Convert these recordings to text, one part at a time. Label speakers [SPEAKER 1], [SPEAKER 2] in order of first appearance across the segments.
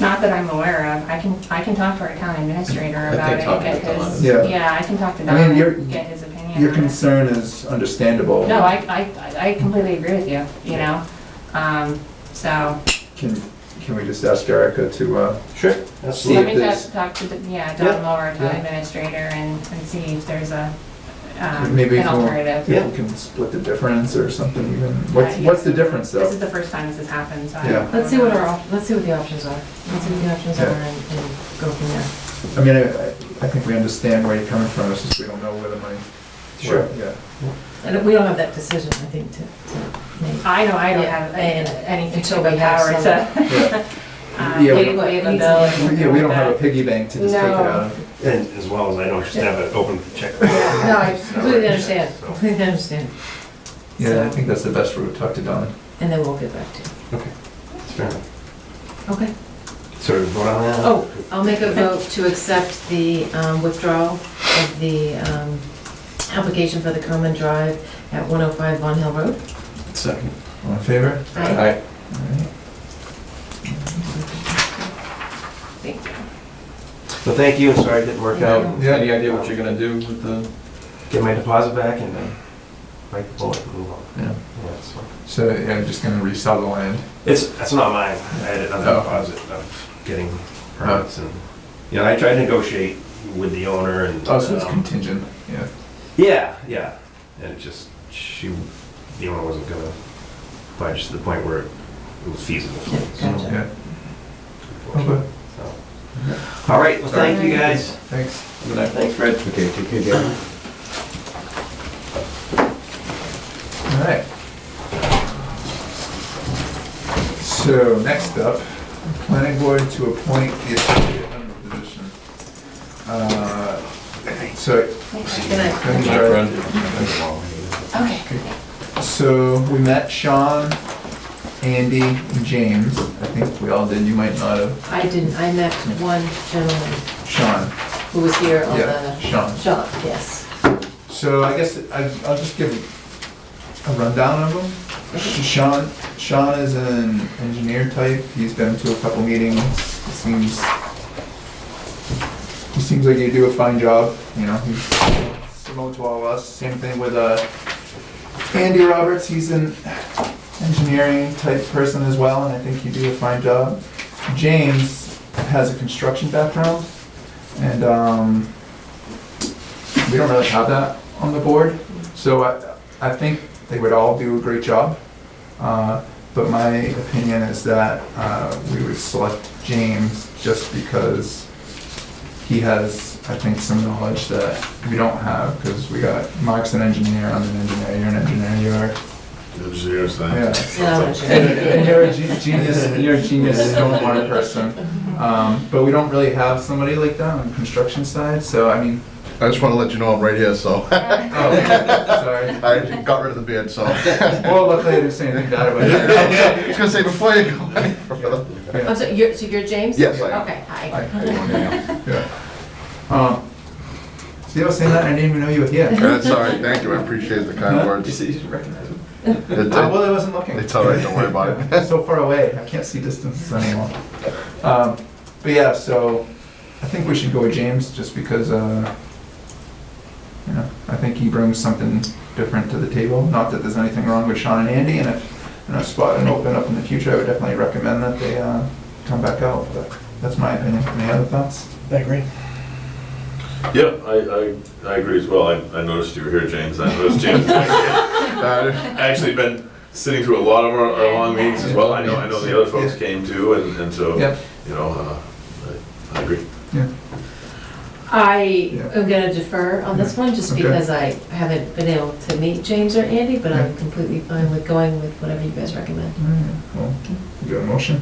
[SPEAKER 1] Not that I'm aware of. I can, I can talk to our county administrator
[SPEAKER 2] think
[SPEAKER 1] about it and
[SPEAKER 2] talking
[SPEAKER 1] get
[SPEAKER 2] to Don
[SPEAKER 1] his,
[SPEAKER 2] is-
[SPEAKER 3] Yeah.
[SPEAKER 1] yeah, I can talk to Don
[SPEAKER 3] I mean, you're-
[SPEAKER 1] and get his opinion on
[SPEAKER 3] Your
[SPEAKER 1] it.
[SPEAKER 3] concern is understandable.
[SPEAKER 1] No, I, I, I completely agree with you, you know? Um, so,
[SPEAKER 3] Can, can we just ask Erica to, uh,
[SPEAKER 2] Sure.
[SPEAKER 3] See
[SPEAKER 1] let
[SPEAKER 3] if
[SPEAKER 1] me
[SPEAKER 3] there's-
[SPEAKER 1] just talk to, the- yeah,
[SPEAKER 2] Yeah,
[SPEAKER 1] Don Lower, our
[SPEAKER 2] yeah.
[SPEAKER 1] town administrator, and, and see if there's a, um,
[SPEAKER 3] Maybe
[SPEAKER 1] an
[SPEAKER 3] if we'll-
[SPEAKER 1] alternative.
[SPEAKER 2] Yeah.
[SPEAKER 3] if we can split the difference or something even? What's,
[SPEAKER 1] Uh,
[SPEAKER 3] what's the
[SPEAKER 1] yes.
[SPEAKER 3] difference
[SPEAKER 1] This is
[SPEAKER 3] though?
[SPEAKER 1] the first time this has happened, so. I
[SPEAKER 3] Yeah.
[SPEAKER 1] don't
[SPEAKER 4] Let's see what
[SPEAKER 1] know.
[SPEAKER 4] our, op- let's see what the options are. Let's see what the options are and and go from there.
[SPEAKER 3] I mean, I, I I think we understand where you're coming from, it's just we don't know where the money.
[SPEAKER 2] Sure.
[SPEAKER 3] Yeah.
[SPEAKER 4] And we don't have that decision, I think, to, to make.
[SPEAKER 1] I know I don't
[SPEAKER 4] Yeah,
[SPEAKER 1] have
[SPEAKER 4] and-
[SPEAKER 1] anything to
[SPEAKER 4] until we
[SPEAKER 1] the
[SPEAKER 4] have
[SPEAKER 1] power
[SPEAKER 4] some-
[SPEAKER 1] to.
[SPEAKER 3] Yeah,
[SPEAKER 1] um,
[SPEAKER 3] Yeah, we-
[SPEAKER 1] pay- pay the
[SPEAKER 4] Yeah,
[SPEAKER 1] bill and
[SPEAKER 3] We- yeah, we
[SPEAKER 1] everything
[SPEAKER 3] don't
[SPEAKER 1] like
[SPEAKER 3] have a
[SPEAKER 1] that.
[SPEAKER 3] piggy bank to just take it
[SPEAKER 4] No.
[SPEAKER 3] out of.
[SPEAKER 5] And as well as I don't just have an open check.
[SPEAKER 4] No, I completely understand,
[SPEAKER 5] So-
[SPEAKER 4] completely understand.
[SPEAKER 3] Yeah, I
[SPEAKER 4] So-
[SPEAKER 3] think that's the best route, talk to Don.
[SPEAKER 4] And then we'll get back to you.
[SPEAKER 5] Okay, that's fair enough.
[SPEAKER 4] Okay.
[SPEAKER 5] So we vote on that?
[SPEAKER 4] Oh, I'll make a vote to accept the um, withdrawal of the um, application for the common drive at 105 Von Hill Road.
[SPEAKER 5] Second.
[SPEAKER 3] All in favor?
[SPEAKER 4] Aye.
[SPEAKER 3] All right.
[SPEAKER 1] Thank you.
[SPEAKER 5] Well, thank you, I'm sorry it didn't work out.
[SPEAKER 2] Yeah, any idea what you're gonna do with the?
[SPEAKER 5] Get my deposit back and then break the bullet and move on.
[SPEAKER 3] Yeah.
[SPEAKER 5] Yeah, so-
[SPEAKER 3] So yeah, I'm just gonna resell the land.
[SPEAKER 5] It's, that's not mine, I had another
[SPEAKER 3] Oh.
[SPEAKER 5] deposit of getting permits and, you know, I tried to negotiate with the owner and.
[SPEAKER 3] Oh, so it's
[SPEAKER 5] um,
[SPEAKER 3] contingent, yeah.
[SPEAKER 5] Yeah, yeah, and it just, she, the owner wasn't gonna, buy just to the point where it was feasible.
[SPEAKER 4] Yeah,
[SPEAKER 5] So,
[SPEAKER 4] gotcha.
[SPEAKER 3] Yeah,
[SPEAKER 5] unfortunately, so. All right, well, thank you guys.
[SPEAKER 3] thanks.
[SPEAKER 2] Good night.
[SPEAKER 5] Thanks, Fred.
[SPEAKER 2] Okay, take care, Gary.
[SPEAKER 3] All right. So next up, planning board to appoint the associate member position. Uh, So,
[SPEAKER 4] Good night.
[SPEAKER 3] thank you,
[SPEAKER 2] My
[SPEAKER 3] Jared.
[SPEAKER 2] friend.
[SPEAKER 4] Okay.
[SPEAKER 3] so we met Sean, Andy, and James. I think we all did, you might not have.
[SPEAKER 4] I didn't, I met one gentleman
[SPEAKER 3] Sean,
[SPEAKER 4] who was here on
[SPEAKER 3] yeah,
[SPEAKER 4] the
[SPEAKER 3] Sean.
[SPEAKER 4] shop, yes.
[SPEAKER 3] So I guess I- I'll just give a rundown of them. Sh- Sean, Sean is an engineer type. He's been to a couple meetings. He Seems, he seems like you do a fine job, you know, he's similar to all of us. Same thing with, uh, Andy Roberts. He's an engineering type person as well, and I think you do a fine job. James has a construction background, and, um, we don't really have that on the board, so I, I think they would all do a great job. Uh, But my opinion is that uh, we would select James just because he has, I think, some knowledge that we don't have, because we got, Mark's an engineer, I'm an engineer, you're an engineer, you are.
[SPEAKER 6] Engineers,
[SPEAKER 3] Yeah.
[SPEAKER 4] No,
[SPEAKER 3] And
[SPEAKER 4] sure.
[SPEAKER 3] and you're a ge- genius, you're a genius stone water person. Um, But we don't really have somebody like that on the construction side, so I mean,
[SPEAKER 6] I just want to let you know I'm right here, so
[SPEAKER 3] oh, sorry.
[SPEAKER 6] I got rid of the beard, so.
[SPEAKER 3] Well, luckily I didn't say anything bad about it.
[SPEAKER 6] I was gonna say, before you go any further.
[SPEAKER 4] I'm sorry, you're, so you're James?
[SPEAKER 6] Yes, I am.
[SPEAKER 4] Okay, hi.
[SPEAKER 3] I- I didn't want to, yeah. Um, See, I was saying that, and I didn't even know you were here.
[SPEAKER 6] Uh, Sorry, thank you, I appreciate the kind
[SPEAKER 3] You
[SPEAKER 6] words.
[SPEAKER 3] said you should recognize me.
[SPEAKER 6] It- it-
[SPEAKER 3] Uh, Well, I wasn't looking.
[SPEAKER 6] It's all right, don't worry about it.
[SPEAKER 3] So far away, I can't see distances anymore. Um, But yeah, so I think we should go with James, just because, uh, you know, I think he brings something different to the table. Not that there's anything wrong with Sean and Andy, and if, you know, spot and open up in the future, I would definitely recommend that they uh, come back out, but that's my opinion. Any other thoughts?
[SPEAKER 5] I agree.
[SPEAKER 7] Yeah, I, I, I agree as well. I, I noticed you were here, James. I noticed James has actually-
[SPEAKER 6] Uh,
[SPEAKER 7] actually been sitting through a lot of our, our long meetings as well. I know, I know the other folks came too, and, and so,
[SPEAKER 3] Yep.
[SPEAKER 7] you know, uh, I, I agree.
[SPEAKER 4] I
[SPEAKER 3] Yeah.
[SPEAKER 4] am gonna defer on this one, just
[SPEAKER 3] Okay.
[SPEAKER 4] because I haven't been able to meet James or Andy, but I'm completely fine with going with whatever you guys recommend.
[SPEAKER 3] Alright, well, you got a motion?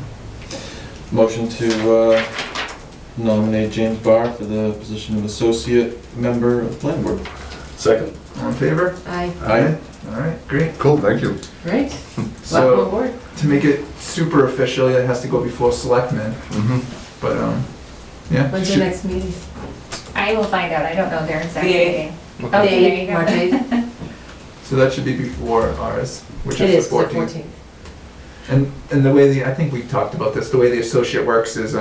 [SPEAKER 2] Motion to uh, nominate James Barr for the position of associate member of the planning board.
[SPEAKER 7] Second,
[SPEAKER 3] All in favor?
[SPEAKER 4] Aye,
[SPEAKER 2] Aye.
[SPEAKER 3] Alright, great.
[SPEAKER 6] Cool, thank you.
[SPEAKER 4] great, welcome
[SPEAKER 3] So,
[SPEAKER 4] aboard.
[SPEAKER 3] to make it super official, it has to go before selectmen,
[SPEAKER 6] Mhm.
[SPEAKER 3] but, um, yeah.
[SPEAKER 4] When's your
[SPEAKER 3] should-
[SPEAKER 4] next meeting?
[SPEAKER 1] I will find out. I don't know their exact
[SPEAKER 4] The eighth.
[SPEAKER 1] meeting.
[SPEAKER 4] Oh,
[SPEAKER 1] there you go.
[SPEAKER 4] March eighth?
[SPEAKER 3] So that should be before ours, which
[SPEAKER 4] It
[SPEAKER 3] is the
[SPEAKER 4] is, the
[SPEAKER 3] fourteenth.
[SPEAKER 4] fourteenth.
[SPEAKER 3] And, and the way the, I think we talked about this, the way the associate works is,